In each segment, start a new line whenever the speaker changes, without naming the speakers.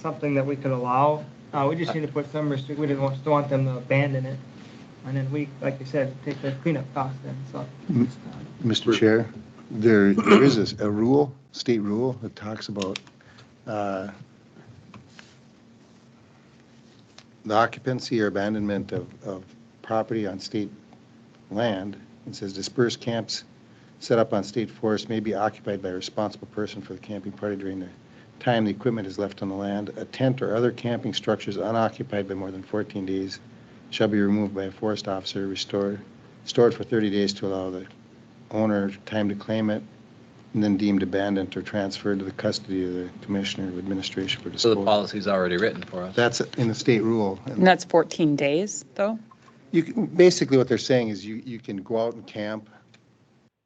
something that we could allow. Uh, we just need to put some restrict, we didn't want, don't want them to abandon it. And then we, like you said, take the cleanup cost and stuff.
Mr. Chair, there there is a- a rule, state rule, that talks about uh, the occupancy or abandonment of, of property on state land. It says dispersed camps set up on state forest may be occupied by a responsible person for the camping party during the time the equipment is left on the land. A tent or other camping structures unoccupied by more than 14 days shall be removed by a forest officer, restored, stored for 30 days to allow the owner time to claim it, and then deemed abandoned or transferred to the custody of the Commissioner of Administration for
So the
disposal.
policy's already written for us.
That's in the state rule. and
And that's 14 days, though?
You, can- basically what they're saying is you, you can go out and camp,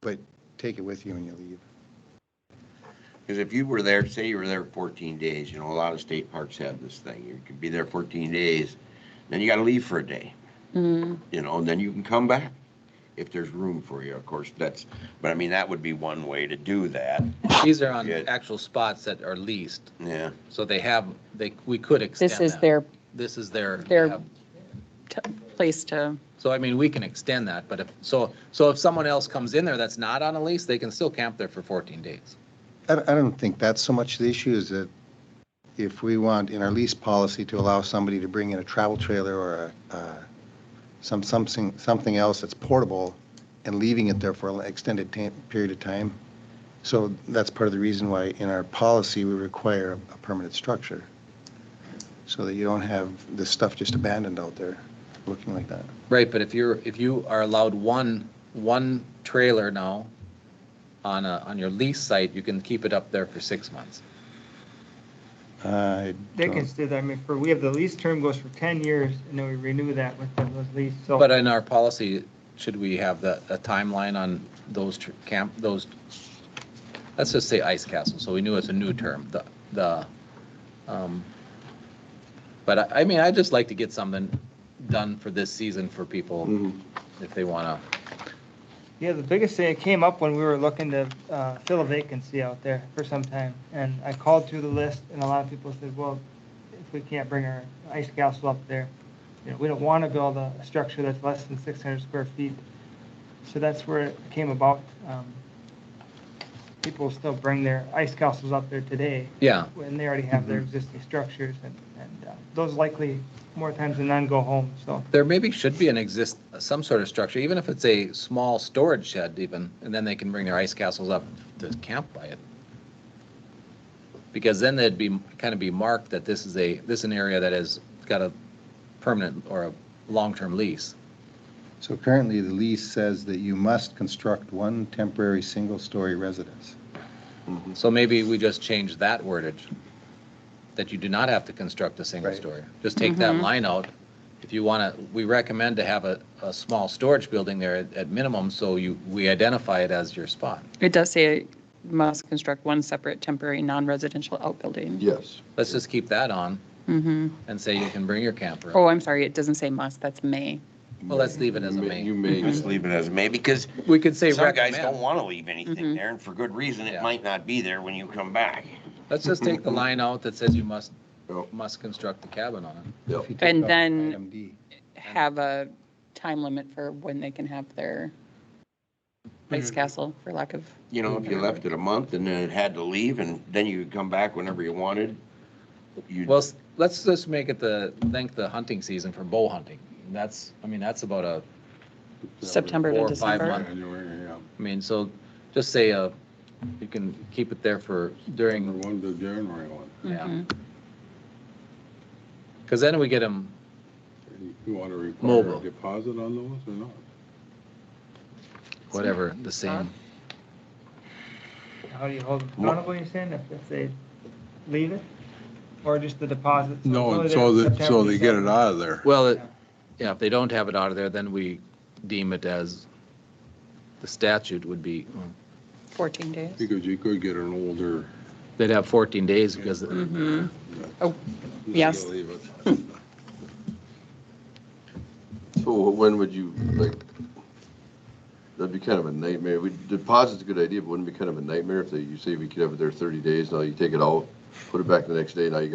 but take it with you when you leave.
Because if you were there, say you were there 14 days, you know, a lot of state parks have this thing. You can be there 14 days, then you got to leave for a day,
Mm,
you know, and then you can come back if there's room for you, of course, that's, but I mean, that would be one way to do that,
These are on
Good.
actual spots that are leased,
yeah.
so they have, they, we could extend
This is
that.
their
This is their,
their- t- place to,
so I mean, we can extend that, but if, so, so if someone else comes in there that's not on a lease, they can still camp there for 14 days.
I, don't- I don't think that's so much the issue is that if we want in our lease policy to allow somebody to bring in a travel trailer or a, uh, some, something, something else that's portable and leaving it there for an extended ta- period of time. So that's part of the reason why in our policy, we require a permanent structure. So that you don't have this stuff just abandoned out there, looking like that.
Right, but if you're, if you are allowed one, one trailer now on a, on your lease site, you can keep it up there for six months.
I
They
don't-
can stay there, I mean, for, we have the lease term goes for ten years and then we renew that with the those lease, so.
But in our policy, should we have the, a timeline on those tr- camp, those, let's just say ice castle, so we knew it's a new term, the, the, um, but I, I mean, I'd just like to get something done for this season for people if they want to.
Yeah, the biggest thing, it came up when we were looking to uh, fill a vacancy out there for some time. And I called through the list and a lot of people said, well, if we can't bring our ice castle up there, you know, we don't want to build a a structure that's less than 600 square feet. So that's where it came about. Um, People still bring their ice castles up there today
Yeah,
when they already have their existing structures and, and uh, those likely more times than none go home, so.
there maybe should be an exist, some sort of structure, even if it's a small storage shed even, and then they can bring their ice castles up to camp by it. Because then they'd be, kind of be marked that this is a, this is an area that has got a permanent or a long-term lease.
So currently, the lease says that you must construct one temporary single-story residence.
Mhm.
So maybe we just change that wordage, that you do not have to construct a single
Right.
story. Just take that
Mhm.
line out. If you want to, we recommend to have a, a small storage building there at, at minimum, so you, we identify it as your spot.
it does say must construct one separate temporary non-residential outbuilding.
Yes.
Let's just keep that on
hmm
and say you can bring your camper.
Oh, I'm sorry, it doesn't say must, that's may.
Well, let's leave it as a
You
main.
may,
Just leave it as may, because
We could say
some guys
recommend.
don't
Mm-hmm.
want to leave anything
Mhm.
there, and for good reason,
Yeah.
it might not be there when you come back.
Let's just take the line out that says you must,
Yep.
must construct the cabin on it.
If you take
And
out
then-
item D.
Have a time limit for when they can have their ice castle, for lack of,
You know, if you left it a month and then it had to leave, and then you could come back whenever you wanted, you'd
Well, s- let's just make it the, length the hunting season for bow hunting. And That's, I mean, that's about a,
September to
Four or five
December.
months.
January, yeah.
I mean, so just say, uh, you can keep it there for
Number
during,
one to January one.
yeah.
Mhm.
Because then we get them,
You want to require
Mobile.
a deposit on those or not?
whatever, the same.
How do you hold them accountable, you're saying, if, if they leave it? Or just the deposit? So it's
No,
only
and so
there
that, so
September,
they get it
December.
out of there.
Well, it- yeah, if they don't have it out of there, then we deem it as, the statute would be,
14 days.
Because you could get an older.
they'd have 14 days because
Mhm. Oh, yes.
Leave it.
So when would you, like, that'd be kind of a nightmare. We, deposit's a good idea, but wouldn't it be kind of a nightmare if they, you say we could have it there thirty days, now you take it out, put it back the next day, now you